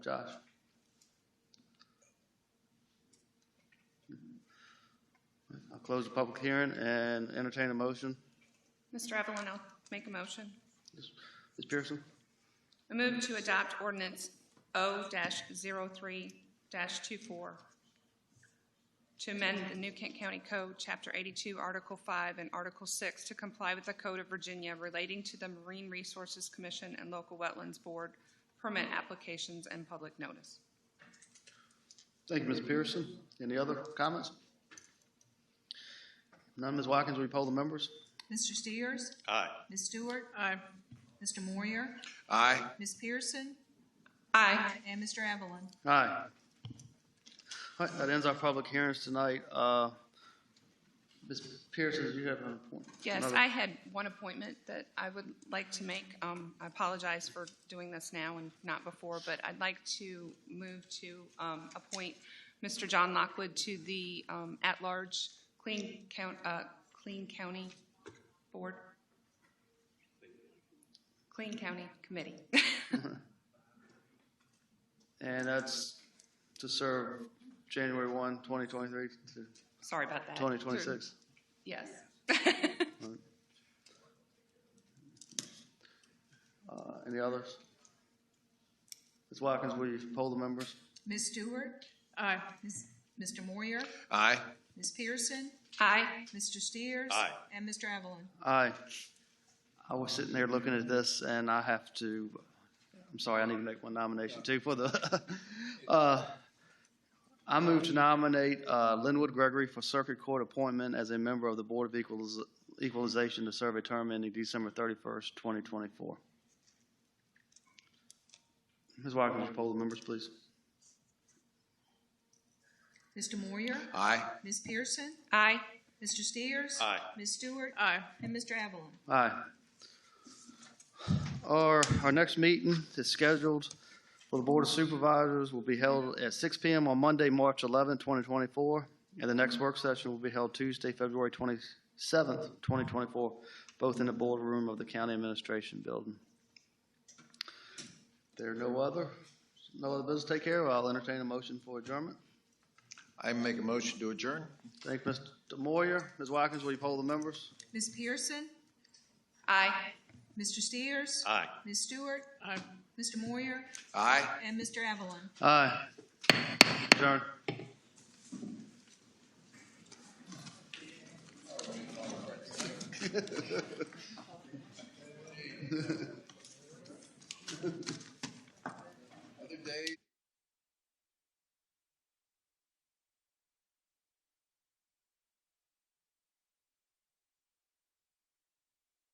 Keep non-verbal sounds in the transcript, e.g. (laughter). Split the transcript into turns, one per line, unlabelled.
Josh? I'll close the public hearing and entertain a motion.
Mr. Evelyn will make a motion.
Ms. Pearson?
I move to adopt ordinance O-03-24 to amend the New Kent County Code, Chapter 82, Article 5, and Article 6 to comply with the Code of Virginia relating to the Marine Resources Commission and Local Wetlands Board permit applications and public notice.
Thank you, Ms. Pearson. Any other comments? None, Ms. Watkins, will you poll the members?
Mr. Steers?
Aye.
Ms. Stewart? Aye. Mr. Moyer?
Aye.
Ms. Pearson?
Aye.
And Mr. Evelyn?
Aye. All right, that ends our public hearings tonight. Uh, Ms. Pearson, you have an appointment?
Yes,
another-
I had one appointment that I would like to make. Um, I apologize for doing this now and not before, but I'd like to move to um, appoint Mr. John Lockwood to the um, at-large Clean County, Clean County Board. Clean County Committee. (laughs)
And that's to serve January 1, 2023 to
Sorry about that.
2026.
Yes.
Uh, Any others? Ms. Watkins, will you poll the members?
Ms. Stewart? Aye. Mr. Moyer?
Aye.
Ms. Pearson?
Aye.
Mr. Steers?
Aye.
And Mr. Evelyn?
Aye. I was sitting there looking at this, and I have to, I'm sorry, I need to make one nomination too for the, (laughs) uh, I move to nominate uh, Linwood Gregory for Circuit Court appointment as a member of the Board of Equaliz- Equalization to serve a term ending December 31st, 2024. Ms. Watkins, poll the members, please.
Mr. Moyer?
Aye.
Ms. Pearson?
Aye.
Mr. Steers?
Aye.
Ms. Stewart? Aye. And Mr. Evelyn?
Aye. Our, our next meeting is scheduled for the Board of Supervisors will be held at six P M on Monday, March eleventh, twenty twenty-four. And the next work session will be held Tuesday, February twenty-seventh, twenty twenty-four, both in the boardroom of the County Administration Building. There are no other, no other business to take care of. I'll entertain a motion for adjournment.
I make a motion to adjourn.
Thank you, Mr. Moyer. Ms. Watkins, will you poll the members?
Ms. Pearson?
Aye.
Mr. Steers?
Aye.
Ms. Stewart? Aye. Mr. Moyer?
Aye.
And Mr. Evelyn?
Aye. Adjourn.